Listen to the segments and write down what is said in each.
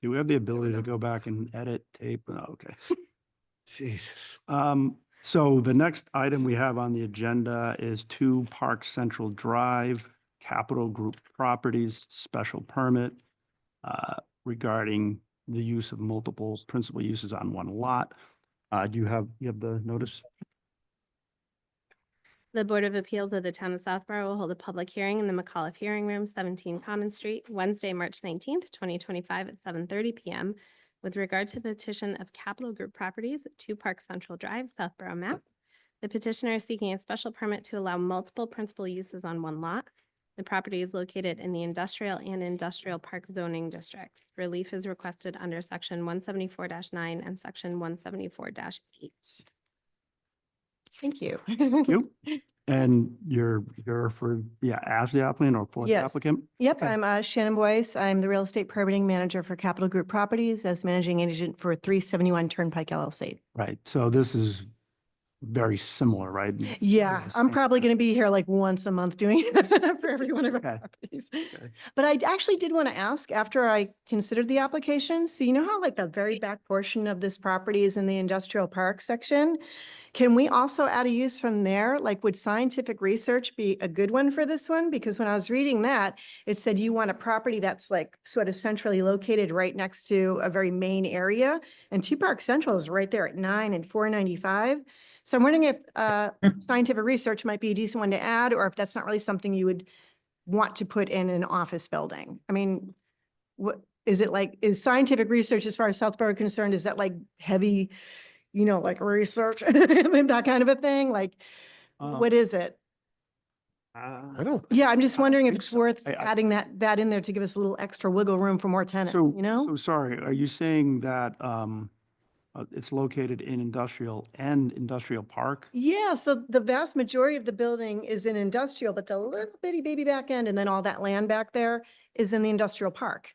Do we have the ability to go back and edit tape? No, Okay. Jesus. Um, so the next item we have on the agenda is two Park Central Drive Capital Group Properties Special Permit uh, regarding the use of multiple principal uses on one lot. Uh, do you have, you have the notice? The Board of Appeals of the Town of Southborough will hold a public hearing in the McAuliffe Hearing Room, seventeen Common Street, Wednesday, March nineteenth, twenty twenty-five at seven thirty PM with regard to petition of Capital Group Properties, Two Park Central Drive, Southborough, Mass. The petitioner is seeking a special permit to allow multiple principal uses on one lot. The property is located in the industrial and industrial park zoning districts. Relief is requested under section one seventy-four nine and section one seventy-four eight. Thank you. Thank You? And you're, you're for, yeah, as the applicant or for the Yes. applicant? Yep, Okay. I'm uh, Shannon Boyce. I'm the real estate permitting manager for Capital Group Properties as managing agent for 371 Turnpike LLC. Right, so this is very similar, right? Yeah, Yes. I'm probably going to be here like once a month doing it for every one of our Okay. properties. But I d- actually did want to ask, after I considered the application, so you know how like the very back portion of this property is in the industrial park section? Can we also add a use from there? Like, would scientific research be a good one for this one? Because when I was reading that, it said you want a property that's like sort of centrally located right next to a very main area. And Two Park Central is right there at nine and four ninety-five. So I'm wondering if uh, scientific research might be a decent one to add, or if that's not really something you would want to put in an office building. I mean, what, is it like, is scientific research as far as Southborough concerned, is that like heavy, you know, like research, that kind of a thing? Like, Um, what is it? I don't. Yeah, I'm just I wondering if think it's so. worth I- I- adding that, that in there to give us a little extra wiggle room for more tenants, So, you know? So sorry, are you saying that um, uh, it's located in industrial and industrial park? Yeah, so the vast majority of the building is in industrial, but the little bitty baby back end and then all that land back there is in the industrial park.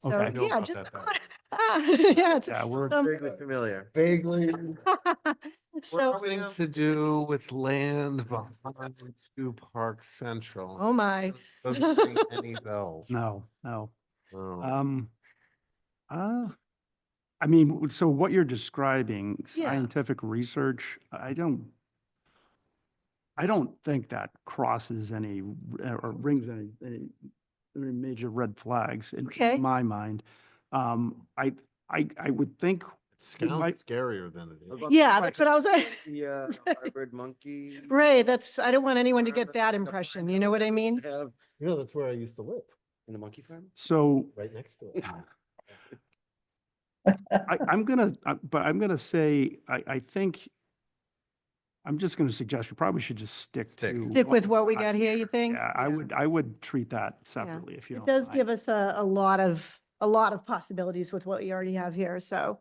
So, Okay. I know yeah, about just. that the back. corner. Ah, yeah, it's- Yeah, we're, so I'm- Vaguely familiar. Vaguely. So, Something to do with land behind Two Park Central. oh my, Doesn't ring any bells. Oh, no, no. No. Um, uh, I mean, w- so what you're describing, Yeah. scientific research, I don't, I don't think that crosses any r- or rings any, any any major red flags in- Okay. in my mind. Um, I, I, I would think It sounds might- scarier than it is. yeah, that's what I was, Yeah, Right. hybrid uh, monkey. right, that's, I don't want anyone to Remember get that the impression, black you know what I mean? Have You know, that's where I used to live, in the monkey farm? so. right next to it. I, I'm gonna, I- but I'm gonna say, I, I think, I'm just gonna suggest you probably should just stick Stick. to. Stick with what we I- got here, you think? Yeah, I Yeah. would, I would treat that separately if you don't. It does mind. give us a, a lot of, a lot of possibilities with what we already have here, so.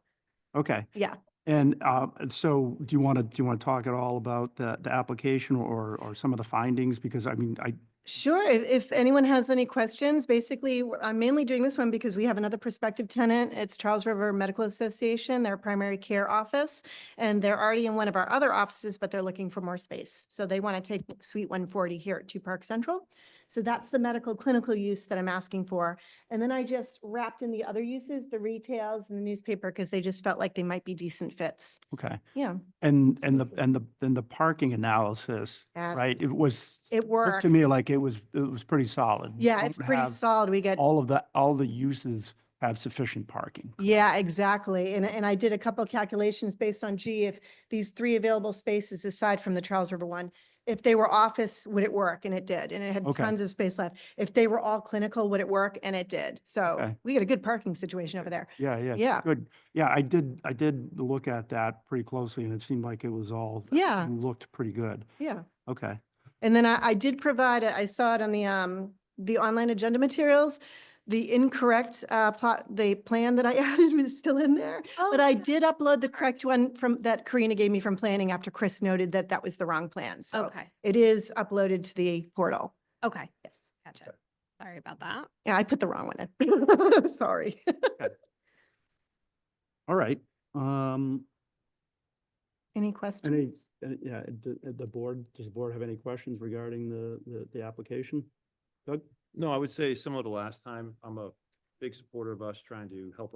Okay. yeah. And, uh, and so do you want to, do you want to talk at all about the, the application or, or some of the findings? Because I mean, I, Sure, if, if anyone has any questions, basically, w- I'm mainly doing this one because we have another prospective tenant. It's Charles River Medical Association, their primary care office. And they're already in one of our other offices, but they're looking for more space. So they want to take Suite 140 here at Two Park Central. So that's the medical clinical use that I'm asking for. And then I just wrapped in the other uses, the retails and the newspaper, because they just felt like they might be decent fits. okay. Yeah. And, and the, and the, and the parking analysis, yes, right? It was. It looked works. To me, like it was, it was pretty solid. You Yeah, it's don't pretty have- solid. We get All of the, all the uses have sufficient parking. Yeah, exactly. And, and I did a couple calculations based on, gee, if these three available spaces aside from the Charles River one, if they were office, would it work? And it did. And it had Okay. tons of space left. If they were all clinical, would it work? And it did. So Okay. we got a good parking situation over there. Yeah, yeah. Yeah. Good. Yeah, I did, I did look at that pretty closely and it seemed like it was all. Yeah. Looked pretty good. Yeah. Okay. And then I, I did provide, I saw it on the, um, the online agenda materials. The incorrect, uh, plot, the plan that I added is still in there. But I did upload the correct one from, that Karina gave me from planning after Chris noted that that was the wrong plan. So Okay, it is uploaded to the portal. okay, yes, gotcha. Sorry about that. Yeah, I put the wrong one in. Sorry. All right. Um, Any questions? any, uh, yeah, the, the board, does the board have any questions regarding the, the, the application? Doug? No, I would say similar to last time, I'm a big supporter of us trying to help